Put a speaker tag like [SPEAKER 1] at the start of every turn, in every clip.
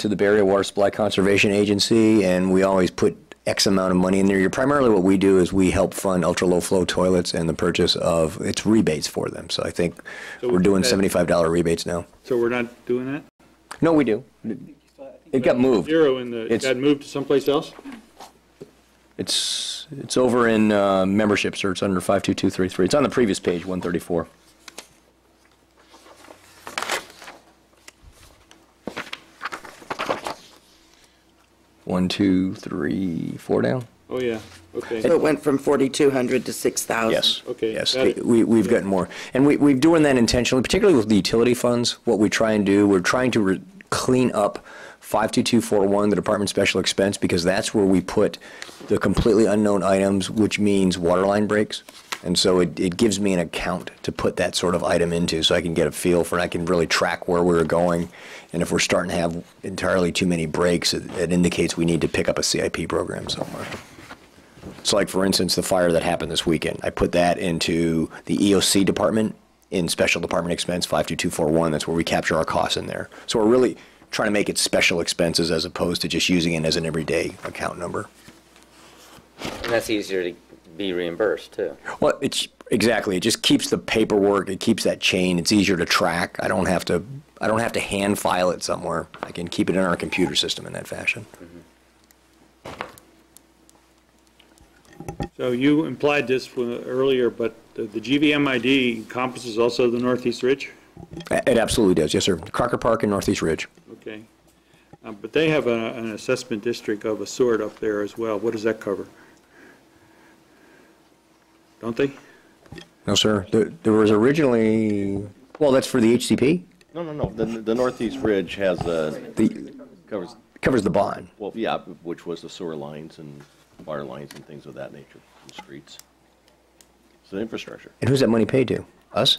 [SPEAKER 1] to the Barrier Water Supply Conservation Agency, and we always put X amount of money in there. Primarily, what we do is we help fund ultra-low flow toilets and the purchase of, it's rebates for them. So I think
[SPEAKER 2] So
[SPEAKER 1] we're doing
[SPEAKER 2] that-
[SPEAKER 1] $75 rebates now.
[SPEAKER 2] So we're not doing that?
[SPEAKER 1] No, we do. It got moved.
[SPEAKER 2] Zero in the, it
[SPEAKER 1] It's-
[SPEAKER 2] got moved to someplace else?
[SPEAKER 1] It's, it's over in uh, membership, so it's under 52233. It's on the previous page, 134. One, two, three, four down?
[SPEAKER 2] Oh, yeah, okay.
[SPEAKER 3] So it went from 4,200 to 6,000?
[SPEAKER 1] Yes.
[SPEAKER 2] Okay,
[SPEAKER 1] Yes,
[SPEAKER 2] got it.
[SPEAKER 1] we, we've gotten more. And we, we're doing that intentionally, particularly with the utility funds. What we try and do, we're trying to re- clean up 52241, the Department of Special Expense, because that's where we put the completely unknown items, which means water line breaks. And so it, it gives me an account to put that sort of item into, so I can get a feel for, it. I can really track where we're going. And if we're starting to have entirely too many breaks, it it indicates we need to pick up a CIP program somewhere. So like, for instance, the fire that happened this weekend, I put that into the EOC department in special department expense 52241. That's where we capture our costs in there. So we're really trying to make it special expenses as opposed to just using it as an everyday account number.
[SPEAKER 4] And that's easier to be reimbursed, too.
[SPEAKER 1] Well, it's, exactly, it just keeps the paperwork, it keeps that chain, it's easier to track. I don't have to, I don't have to hand file it somewhere. I can keep it in our computer system in that fashion.
[SPEAKER 2] So you implied this when- earlier, but the the GVM ID encompasses also the Northeast Ridge?
[SPEAKER 1] A- It absolutely does, yes, sir. Crocker Park and Northeast Ridge.
[SPEAKER 2] Okay. Uh, But they have a- an assessment district of a sort up there as well. What does that cover? Don't they?
[SPEAKER 1] No, sir, there, there was originally, well, that's for the HCP?
[SPEAKER 5] No, no, no, the, the Northeast Ridge has a,
[SPEAKER 1] The,
[SPEAKER 5] covers,
[SPEAKER 1] covers the bond.
[SPEAKER 5] well, yeah, which was the sewer lines and water lines and things of that nature, and streets. It's an infrastructure.
[SPEAKER 1] And who's that money paid to? Us?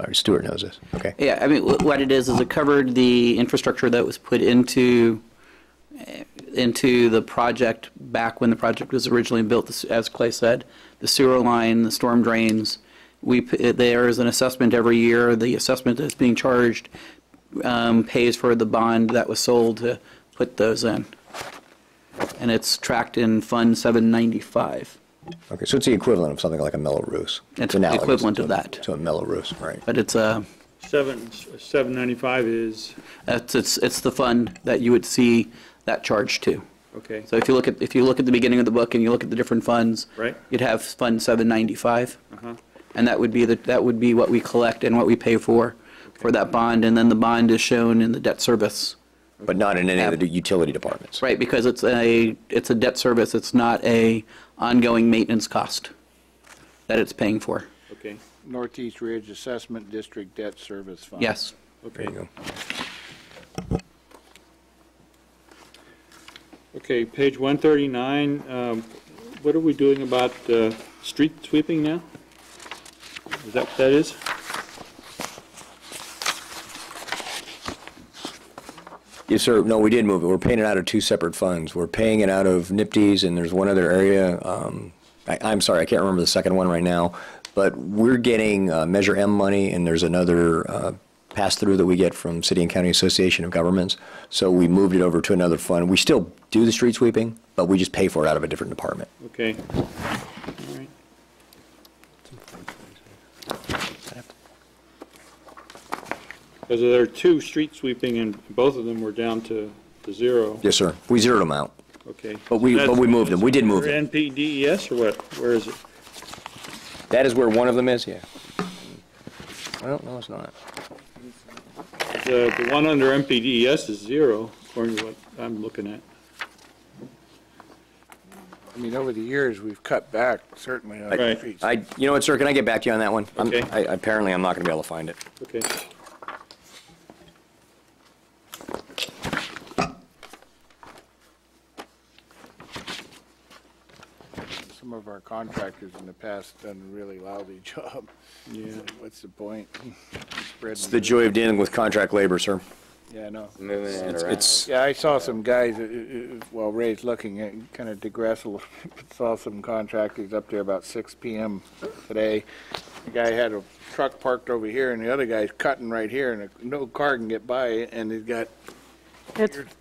[SPEAKER 1] All right, Stuart knows this. Okay.
[SPEAKER 6] Yeah, I mean, wh- what it is, is it covered the infrastructure that was put into, eh, into the project back when the project was originally built, the s- as Clay said, the sewer line, the storm drains. We, p- eh, there is an assessment every year, the assessment that's being charged um, pays for the bond that was sold to put those in. And it's tracked in Fund 795,
[SPEAKER 1] Okay, so it's the equivalent of something like a mellow ruse.
[SPEAKER 6] It's
[SPEAKER 1] analogous
[SPEAKER 6] equivalent
[SPEAKER 1] to-
[SPEAKER 6] of that.
[SPEAKER 1] To a mellow ruse, right.
[SPEAKER 6] but it's a,
[SPEAKER 2] Seven, 795 is,
[SPEAKER 6] it's, it's it's the fund that you would see that charge to.
[SPEAKER 2] okay.
[SPEAKER 6] So if you look at, if you look at the beginning of the book and you look at the different funds.
[SPEAKER 2] Right.
[SPEAKER 6] You'd have Fund 795. And that would be, the that would be what we collect and what we pay for, for that bond. And then the bond is shown in the debt service,
[SPEAKER 1] But not in any of the utility departments.
[SPEAKER 6] right? Because it's a, it's a debt service, it's not a ongoing maintenance cost that it's paying for.
[SPEAKER 2] Okay,
[SPEAKER 7] Northeast Ridge Assessment District Debt Service Fund.
[SPEAKER 6] Yes.
[SPEAKER 1] There
[SPEAKER 2] okay.
[SPEAKER 1] you go.
[SPEAKER 2] Okay, page 139, um, what are we doing about uh, street sweeping now? Is that what that is?
[SPEAKER 1] Yes, sir. No, we did move it. We're paying it out of two separate funds. We're paying it out of NIPD's and there's one other area. Um, I, I'm sorry, I can't remember the second one right now. But we're getting uh, Measure M money and there's another uh, pass through that we get from City and County Association of Governments. So we moved it over to another fund. We still do the street sweeping, but we just pay for it out of a different department.
[SPEAKER 2] Okay. All right. Because there are two street sweeping and both of them were down to to zero.
[SPEAKER 1] Yes, sir. We zeroed them out.
[SPEAKER 2] Okay.
[SPEAKER 1] But we- but we moved them. We did move them.
[SPEAKER 2] NPDES E or what? Where is it?
[SPEAKER 1] That is where one of them is, yeah. Well, no, it's not.
[SPEAKER 2] The the one under NPDES E is zero, according to what I'm looking at.
[SPEAKER 7] I mean, over the years, we've cut back certainly on
[SPEAKER 2] Right.
[SPEAKER 7] streets.
[SPEAKER 1] I, you know what, sir, can I get back to you on that one? I'm-
[SPEAKER 2] Okay.
[SPEAKER 1] I- Apparently, I'm not going to be able to find it.
[SPEAKER 2] Okay.
[SPEAKER 7] Some of our contractors in the past done a really lousy job.
[SPEAKER 2] Yeah.
[SPEAKER 7] What's the point?
[SPEAKER 1] It's the joy of dealing with contract labor, sir.
[SPEAKER 7] Yeah, no.
[SPEAKER 4] Moving it around.
[SPEAKER 1] It's,
[SPEAKER 7] Yeah, I saw some guys, uh, uh, uh, while Ray's looking, at kind of digress a little, bit, saw some contractors up there about 6 PM today. The guy had a truck parked over here, and the other guy's cutting right here, and no car can get by, and he's got
[SPEAKER 8] It's